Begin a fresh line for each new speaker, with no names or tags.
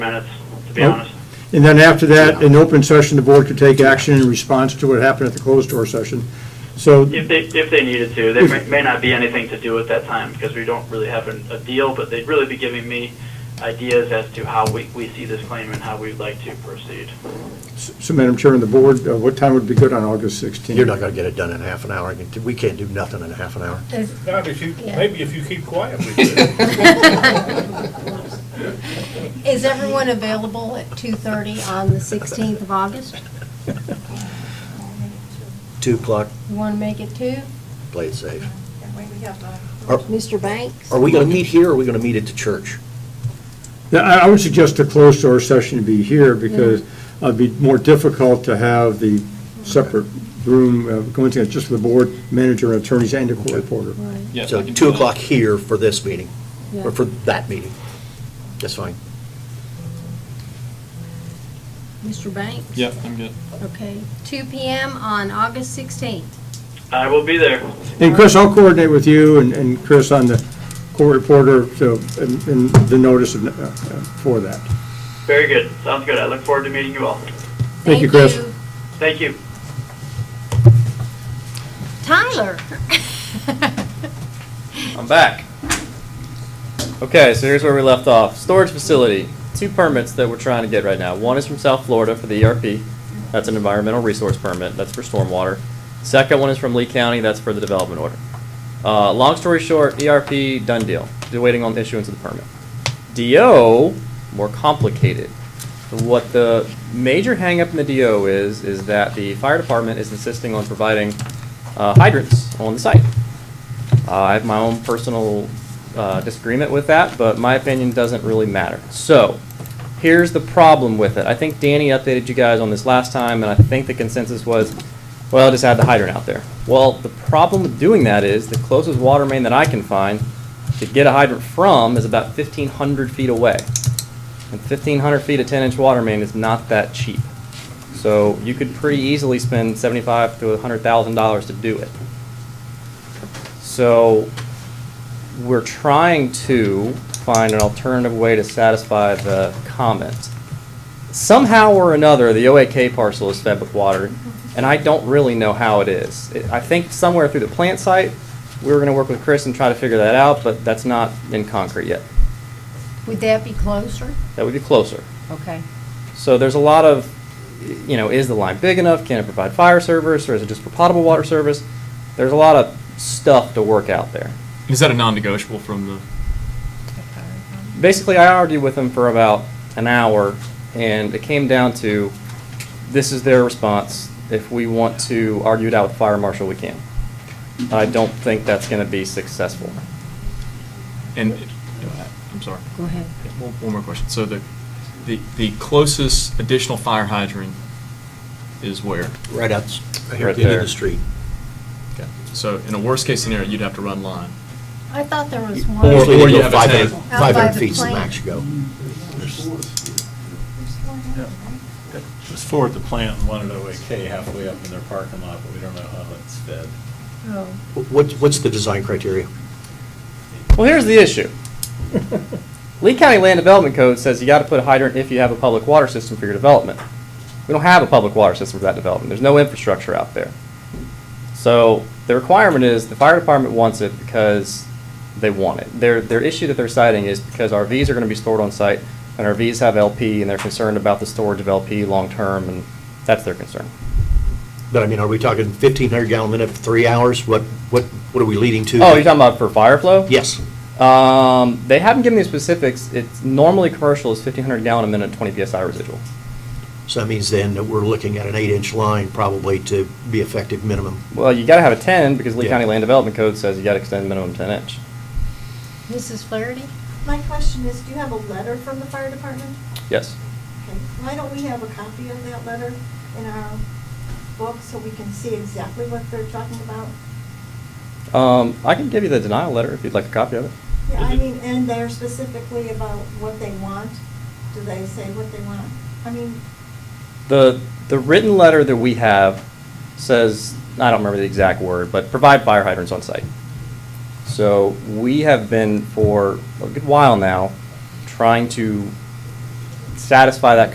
minutes, to be
Oh.
honest.
And then after that, in open session, the board could take action in response to what happened at the closed door session. So,
If they, if they needed to, there may, may not be anything to do at that time because we don't really have an, a deal, but they'd really be giving me ideas as to how we, we see this claim and how we'd like to proceed.
so Madam Chair and the board, uh, what time would be good on August 16th?
You're not going to get it done in half an hour. I can- We can't do nothing in a half an hour.
Is-
Not if you,
Yeah.
maybe if you keep quiet. we could.
Is everyone available at 2:30 on the 16th of August?
Two o'clock,
You want to make it 2?
play it safe.
Mr. Banks?
Are we going to meet here or are we going to meet at the church?
Yeah, I I would suggest the closed door session to be here because uh, it'd be more difficult to have the separate room uh, going to, just the board, manager, attorneys, and the court reporter.
Right,
Yes,
So
we can
two
do that.
o'clock here for this meeting,
yeah.
or for that meeting. That's fine.
Mr. Banks?
Yep, I'm good.
Okay, 2 PM on August 16th.
I will be there.
And Chris, I'll coordinate with you and- and Chris on the court reporter so, and and the notice of, uh, uh, for that.
Very good. Sounds good. I look forward to meeting you all.
Thank you, Chris.
Thank you.
Tyler?
I'm back. Okay, so here's where we left off. Storage facility. Two permits that we're trying to get right now. One is from South Florida for the ERP. That's an environmental resource permit. That's for stormwater. Second one is from Lee County. That's for the development order. Uh, long story short, ERP done deal. They're waiting on the issuance of the permit. DO more complicated. What the major hangup in the DO is is that the fire department is insisting on providing uh, hydrants on the site. Uh, I have my own personal uh, disagreement with that, but my opinion doesn't really matter. So, here's the problem with it. I think Danny updated you guys on this last time, and I think the consensus was, well, just add the hydrant out there. Well, the problem with doing that is the closest water main that I can find to get a hydrant from is about 1,500 feet away. And 1,500 feet of 10-inch water main is not that cheap. So you could pretty easily spend 75 to 100,000 dollars to do it. So we're trying to find an alternative way to satisfy the comment. Somehow or another, the OAK parcel is fed with water, and I don't really know how it is. It- I think somewhere through the plant site, we were gonna work with Chris and try to figure that out, but that's not in concrete yet.
Would that be closer?
That would be closer.
Okay.
So there's a lot of, you know, is the line big enough? Can it provide fire service, or is it just for potable water service? There's a lot of stuff to work out there.
Is that a non-negotiable from the?
basically, I argued with them for about an hour, and it came down to, this is their response. If we want to argue it out with fire marshal, we can. I don't think that's going to be successful.
And I'm sorry.
Go ahead.
One, one more question. So the, the the closest additional fire hydrant is where?
Right out, right here at
Right
the end of
there.
the street.
Okay. So in a worst case scenario, you'd have to run line.
I thought there was
Or-
one.
Usually
or
they
you
go
have a
500
tank.
Out by
500
the
feet is the
plant.
max you go.
Just forward the plant and one at OAK halfway up in their parking lot, but we don't know how that's fed.
Oh,
What, what's the design criteria?
Well, here's the issue. Lee County Land Development Code says you got to put a hydrant if you have a public water system for your development. We don't have a public water system for that development. There's no infrastructure out there. So the requirement is the fire department wants it because they want it. Their, their issue that they're citing is because RVs are going to be stored on site and RVs have LP and they're concerned about the storage of LP long-term and that's their concern.
But I mean, are we talking 1,500 gallon minute for three hours? What, what, what are we leading to?
Oh, you're talking about for fire flow?
Yes.
Um, they haven't given me specifics. It's normally commercial is 1,500 gallon a minute, 20 psi residual.
So that means then that we're looking at an eight-inch line probably to be effective minimum.
Well, you got to have a 10 because Lee
Yeah.
County Land Development Code says you got to extend minimum 10 inch.
Mrs. Flaherty?
My question is, do you have a letter from the fire department?
Yes.
Okay, Why don't we have a copy of that letter in our book so we can see exactly what they're talking about?
Um, I can give you the denial letter if you'd like a copy of it.
Yeah, I mean, and they're specifically about what they want. Do they say what they want? I mean,
The the written letter that we have says I don't remember the exact word, but provide fire hydrants on site. So we have been for a good while now trying to satisfy that